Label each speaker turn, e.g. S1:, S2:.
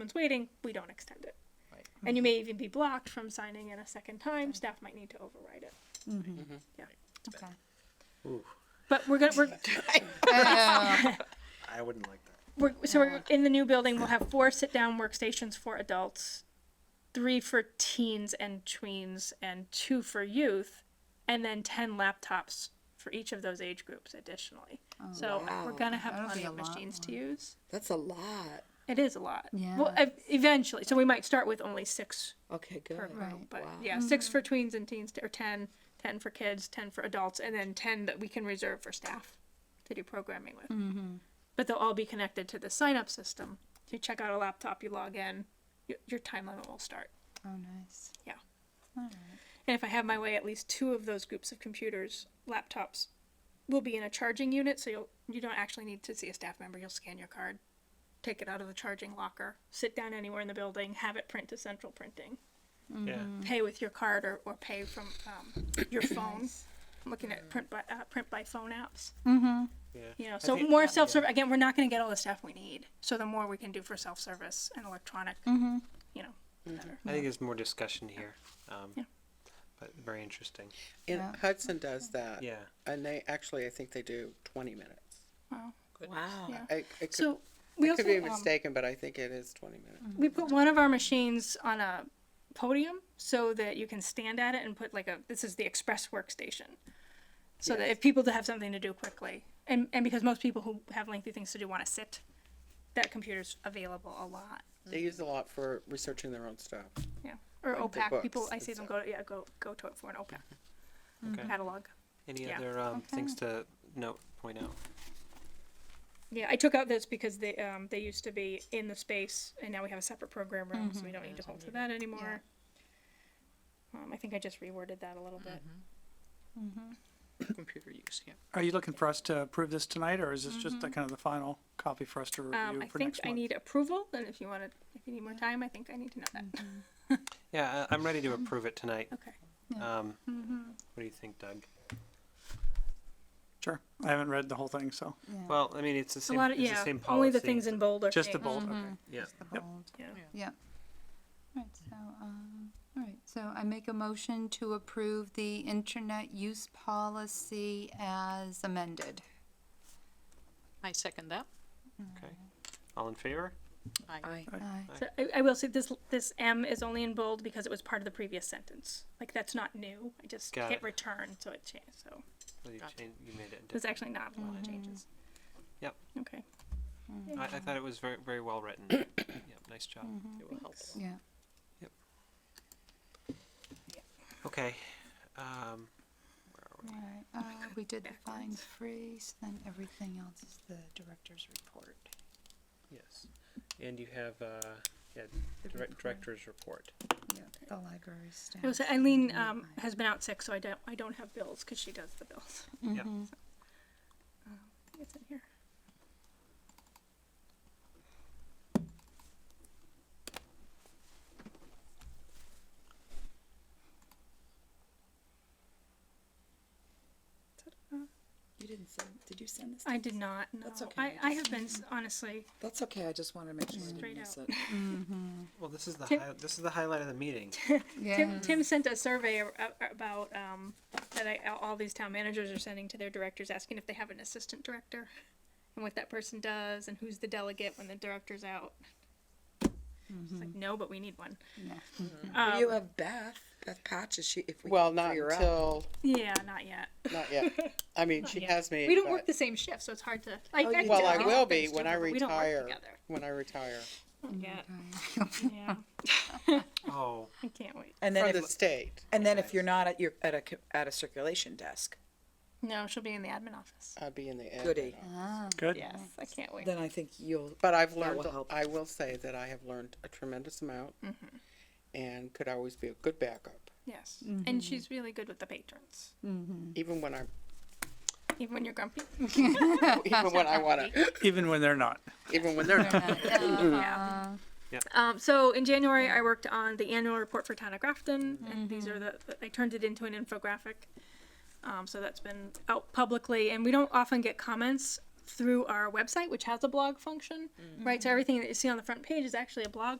S1: someone's waiting, we don't extend it.
S2: Right.
S1: And you may even be blocked from signing in a second time. Staff might need to override it.
S3: Okay.
S1: But we're gonna we're
S3: Oh,
S4: I wouldn't like that.
S1: We're, so we're in the new building. We'll have four sit-down workstations for adults, three for teens and tweens, and two for youth, and then ten laptops for each of those age groups additionally. so we're gonna have
S3: Oh, That'll
S1: plenty
S3: be a
S1: of
S3: lot
S1: machines to use.
S2: That's a lot.
S1: It is a lot.
S3: Yeah.
S1: Well, ev- eventually, so we might start with only six
S2: Okay, good.
S1: per group,
S3: Right.
S1: but
S2: Wow.
S1: yeah, six for tweens and teens, or 10, 10 for kids, ten for adults, and then ten that we can reserve for staff to do programming with. But they'll all be connected to the sign-up system. You check out a laptop, you log in, your, your time limit will start.
S3: Oh, nice.
S1: Yeah. And if I have my way, at least two of those groups of computers, laptops, will be in a charging unit, so you'll you don't actually need to see a staff member. You'll scan your card, take it out of the charging locker, sit down anywhere in the building, have it print to central printing,
S4: Yeah.
S1: pay with your card or, or pay from um, your phone. I'm looking at print by uh, print by phone apps.
S4: Yeah.
S1: You know,
S4: I
S1: so
S4: think-
S1: more self service. Again, we're not going to get all the stuff we need. So the more we can do for self service and electronic, you know, the better.
S4: I think there's more discussion here. Um,
S1: Yeah.
S4: But very interesting.
S5: And
S3: Yeah.
S5: Hudson does that.
S4: Yeah.
S5: And they actually, I think they do 20 minutes.
S1: Wow.
S2: Wow.
S1: Yeah.
S5: I, it could,
S1: So we
S5: I
S1: also
S5: could be
S1: um,
S5: mistaken, but I think it is 20 minutes.
S1: we put one of our machines on a podium so that you can stand at it and put like a this is the express workstation so that if people to have something to do quickly and and because most people who have lengthy things to do want to sit that computer's available a lot
S5: They use a lot for researching their own stuff.
S1: yeah or
S5: Like the
S1: opac people
S5: books
S1: i
S5: and
S1: see them go
S5: stuff.
S1: to yeah go go to it for an opac Mm-hmm.
S4: Okay.
S1: catalog
S4: Any
S1: Yeah.
S4: other um, things to note, point out?
S1: yeah i took out this because they um they used to be in the space and now we have a separate program room Mm-hmm. so we don't need to hold to that anymore um, i think i just reworded that a little bit
S2: Computer use, yeah.
S6: Are you looking for us to approve this tonight, or is this just the kind of the final copy for us to
S1: Mm-hmm. Um,
S6: review
S1: I
S6: for
S1: think
S6: next
S1: I
S6: month?
S1: need approval, and if you want to, if you need more time, I think I need to know that.
S4: Yeah, I, I'm ready to approve it tonight.
S1: Mm-hmm. Okay. Mm-hmm.
S4: Um, What do you think, Doug?
S6: Sure, I haven't read the whole thing, so,
S4: Well, I mean, it's the
S1: A
S4: same,
S1: lot of,
S4: it's
S1: yeah,
S4: the same policy.
S1: only the things in bold are
S6: just the
S1: staying.
S6: bold, okay.
S4: Yeah.
S3: The
S6: Yep.
S3: bold.
S1: Yeah.
S3: Yeah. All right. So, um, all right. So I make a motion to approve the internet use policy as amended.
S7: I second that.
S4: Okay. All in favor?
S7: I
S3: Aye.
S1: So I, I will say this, this M is only in bold because it was part of the previous sentence. Like, that's not new. I just
S4: Got
S1: hit
S4: it.
S1: return, so it changed, so
S4: Well, you, changed, you made it.
S1: there's
S4: different.
S1: actually not a lot of changes.
S5: Mm.
S4: Yep.
S1: Okay.
S4: I, I thought it was very, very well written. yep, nice job.
S1: Mm-hmm.
S2: It will help.
S3: Yeah.
S4: Okay. Um,
S3: All right. Uh, we did the fine freeze. Then everything else is the director's report.
S4: yes. And you have uh, yeah,
S3: The
S4: direct,
S3: report.
S4: director's report.
S3: Yeah. The library staff.
S1: It was, Eileen, um, has been out sick, so I don't, I don't have bills, cause she does the bills.
S3: Mm-hmm.
S4: Yeah.
S1: It's in here.
S8: You didn't send, did you send this?
S1: I did not, no.
S8: That's okay,
S1: I,
S8: I
S1: I have been, s- honestly,
S8: That's okay, I just wanted to make sure I
S1: Straight
S8: didn't miss
S1: out.
S8: it.
S4: Well, this is the
S1: Tim-
S4: hi- this is the highlight of the meeting.
S3: Yeah.
S8: Mm.
S1: Tim, Tim sent a survey a- a- about um, that I, all these town managers are sending to their directors, asking if they have an assistant director, and what that person does, and who's the delegate when the director's out. It's
S8: Mm-hmm.
S1: like no, but we need one.
S8: Well, You have Beth, Beth Patch, is she, if we.
S5: Well,
S8: can
S5: not
S8: figure out-
S5: until,
S1: Yeah, not yet.
S5: not yet. I mean, she has me.
S1: We don't
S5: but-
S1: work the same shift, so it's hard to. Like,
S8: Oh, you
S5: Well, I
S8: Yeah.
S5: will be when I
S1: We don't work
S5: retire.
S1: together.
S5: When I retire
S1: Yeah,
S3: Okay.
S1: yeah.
S4: Oh,
S1: I can't wait.
S8: And then
S5: from the
S8: if,
S5: state.
S8: and then if you're not at your, at a, co- at a circulation desk,
S1: No, she'll be in the admin office.
S5: I'd be in the admin
S8: Goody.
S5: office.
S1: Uh-huh.
S6: Good?
S1: Yes, I can't wait.
S8: then I think you'll,
S5: But I've
S8: That will
S5: learned,
S8: help.
S5: I will say that I have learned a tremendous amount
S1: Mm-hmm.
S5: and could always be a good backup,
S1: Yes, and she's really good with the patrons, Mm-hmm.
S5: even when I,
S1: even when you're grumpy.
S5: even when I want to,
S6: Even when they're not.
S5: even when they're not.
S1: Um, so in January, I worked on the annual report for Town of Grafton, and these are the I turned it into an infographic. Um, so that's been out publicly, and we don't often get comments through our website, which has a blog function, right? So everything that you see on the front page is actually a blog